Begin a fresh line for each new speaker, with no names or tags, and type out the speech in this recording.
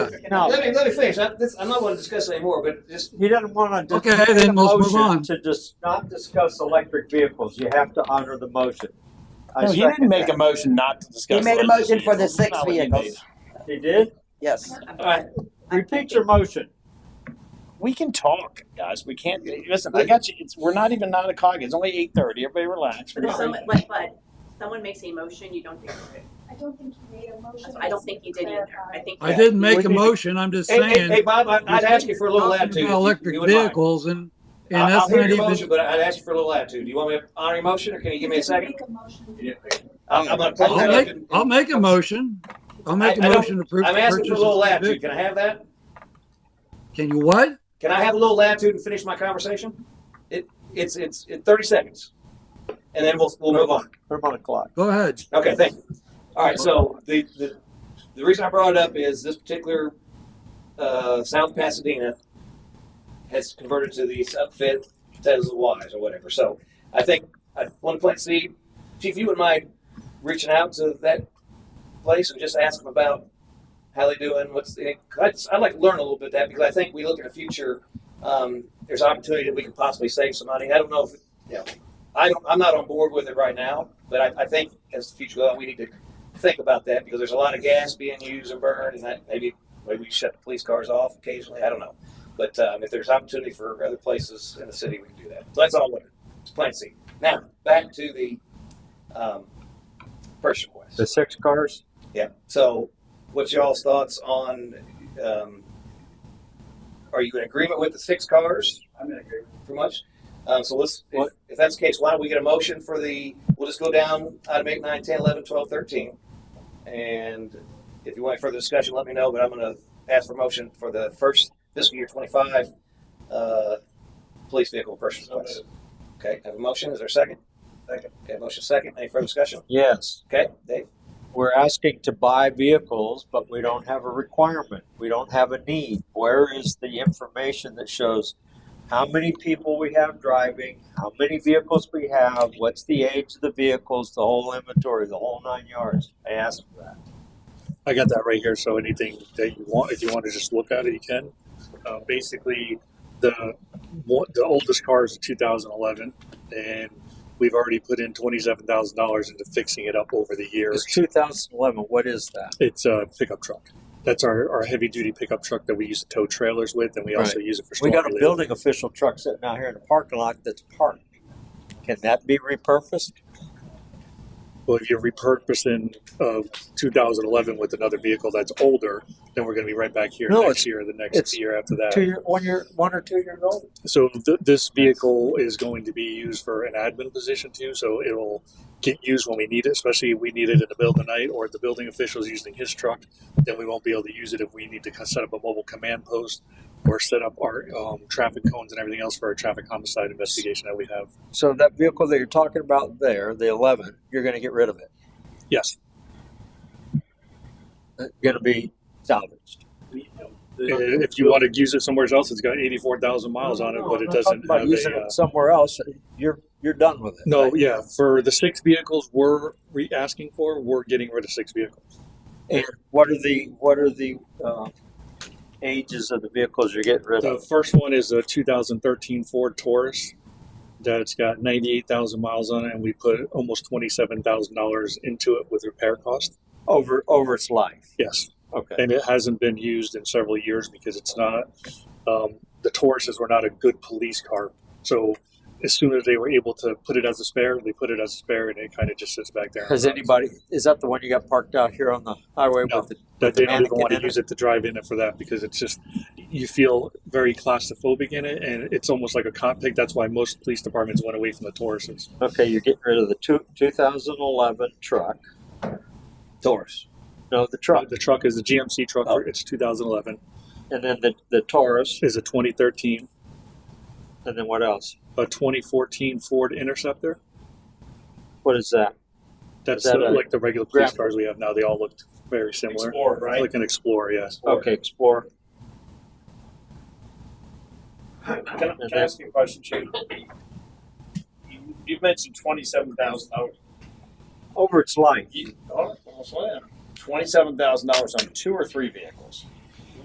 Let
No,
me, let me finish. I, this, I'm not going to discuss it anymore, but just,
he doesn't want to.
Okay, then let's move on.
To just not discuss electric vehicles, you have to honor the motion. I
No, he
second
didn't make
that.
a motion not to discuss.
He made a motion
electric
for the
vehicles.
six
Not what he
vehicles.
made.
He did?
Yes.
all right.
Repeat your motion.
We can talk, guys. We can't. Listen, I got you. It's, we're not even nine o'clock. It's only eight thirty. Everybody relax.
But if someone, but, but someone makes a motion, you don't think,
I don't think he made a motion.
I don't think you did either. I think.
I didn't make
We
a
need to-
motion, I'm just
Hey, hey, hey,
saying,
Bob, I- I'd ask you for a little
talking
latitude.
about
if you-
electric
you wouldn't mind.
vehicles and,
I'll-
and that's
I'll hear
not
your motion,
even,
but I'd ask you for a little latitude. Do you want me to honor your motion, or can you give me a second?
Make a motion.
I'm, I'm gonna close
I'll
it
make,
up. and-
I'll make a motion. I'll make a
I- I don't-
motion to approve.
I'm
the
asking for a little
purchase of the
latitude. Can I have that?
vehicle. Can you what?
Can I have a little latitude and finish my conversation? It, it's, it's, it's thirty seconds. And then we'll, we'll move on.
Put him on the clock.
Go ahead.
Okay, thank you. All right, so the, the, the reason I brought it up is this particular uh, South Pasadena has converted to these upfit Tesla Ys or whatever. So I think I want to plant seed. Chief, you wouldn't mind reaching out to that place and just ask them about how they doing, what's the, I'd, I'd like to learn a little bit of that because I think we look at the future, um, there's opportunity that we could possibly save some money. I don't know if, you know, I don't, I'm not on board with it right now, but I, I think as the future goes on, we need to think about that because there's a lot of gas being used and burned, and that maybe maybe we shut the police cars off occasionally. I don't know, but um, if there's opportunity for other places in the city, we can do that. So that's all. I wanted. It's plain seat. Now back to the um, purchase request.
The six cars?
Yeah. So, what's y'all's thoughts on? Um, are you in agreement with the six cars? I'm in agreement. Pretty much. Um, so let's. If,
What?
if that's the case, why don't we get a motion for the? We'll just go down item eight, nine, ten, eleven, twelve, thirteen, and if you want further discussion, let me know. But I'm going to ask for motion for the first fiscal year twenty-five uh, police vehicle purchase request. Okay. Have a motion. Is there a second? Second. Okay. Motion second. Any further discussion?
Yes.
Okay. Dave.
We're asking to buy vehicles, but we don't have a requirement. We don't have a need. Where is the information that shows how many people we have driving, how many vehicles we have, what's the age of the vehicles, the whole inventory, the whole nine yards? I asked for that.
I got that right here. So anything that you want, if you want to just look at it, you can. Uh, basically, the one- the oldest car is a 2011, and we've already put in twenty-seven thousand dollars into fixing it up over the years.
It's 2011. What is that?
It's a pickup truck. That's our, our heavy duty pickup truck that we use to tow trailers with, and we also use it for.
We got a
storm relief.
building official truck sitting out here in the parking lot that's parked. Can that be repurposed?
Well, if you're repurposing uh, 2011 with another vehicle that's older, then we're going to be right back here
No,
next
it's-
year, or the
it's
next year after that.
Two year, one year, one or two years old?
So th- this vehicle is going to be used for an admin position too. So it'll get used when we need it, especially if we need it in the middle of the night or if the building official is using his truck. Then we won't be able to use it if we need to co- set up a mobile command post or set up our um, traffic cones and everything else for our traffic homicide investigation that we have.
So that vehicle that you're talking about there, the 11, you're going to get rid of it.
Yes,
It's going to be salvaged.
And if you want to use it somewhere else, it's got 84,000 miles on it, but it
I'm not talking
doesn't
about
have
using
a. uh,
it somewhere else. You're you're done with it.
No,
right?
yeah, for the six vehicles we're re- asking for, we're getting rid of six vehicles.
And what are the what are the uh, ages of the vehicles you're getting rid
The
of?
first one is a 2013 Ford Taurus that's got 98,000 miles on it, and we put almost $27,000 into it with repair cost.
Over over its life.
Yes,
Okay.
and it hasn't been used in several years because it's not. Um, the Tauruses were not a good police car, so as soon as they were able to put it as a spare, they put it as a spare, and it kind of just sits back there.
Has anybody is that the one you got parked out here on the highway
No.
with the
that they don't even
mannequin
want
in
to use it to drive in it for that because it's just you feel very claustrophobic in it and it's almost like a cop pick. That's why most police departments went away from the Tauruses.
Okay, you're getting rid of the two, 2011 truck. Taurus. No, the truck.
Uh,
Oh.
The truck is a GMC truck. It's 2011.
And then the, the Taurus.
Is a 2013,
And then what else?
a 2014 Ford Interceptor.
What is that?
That's
Is that a
uh, like the regular police
Grand-
cars we have now. They all looked very similar.
Explorer, right?
Like an Explorer, yes.
Okay, Explorer.
Can I, can I ask you a question, Chief? You, you mentioned twenty-seven thousand dollars.
Over its life.
Twenty-seven thousand dollars on two or three vehicles.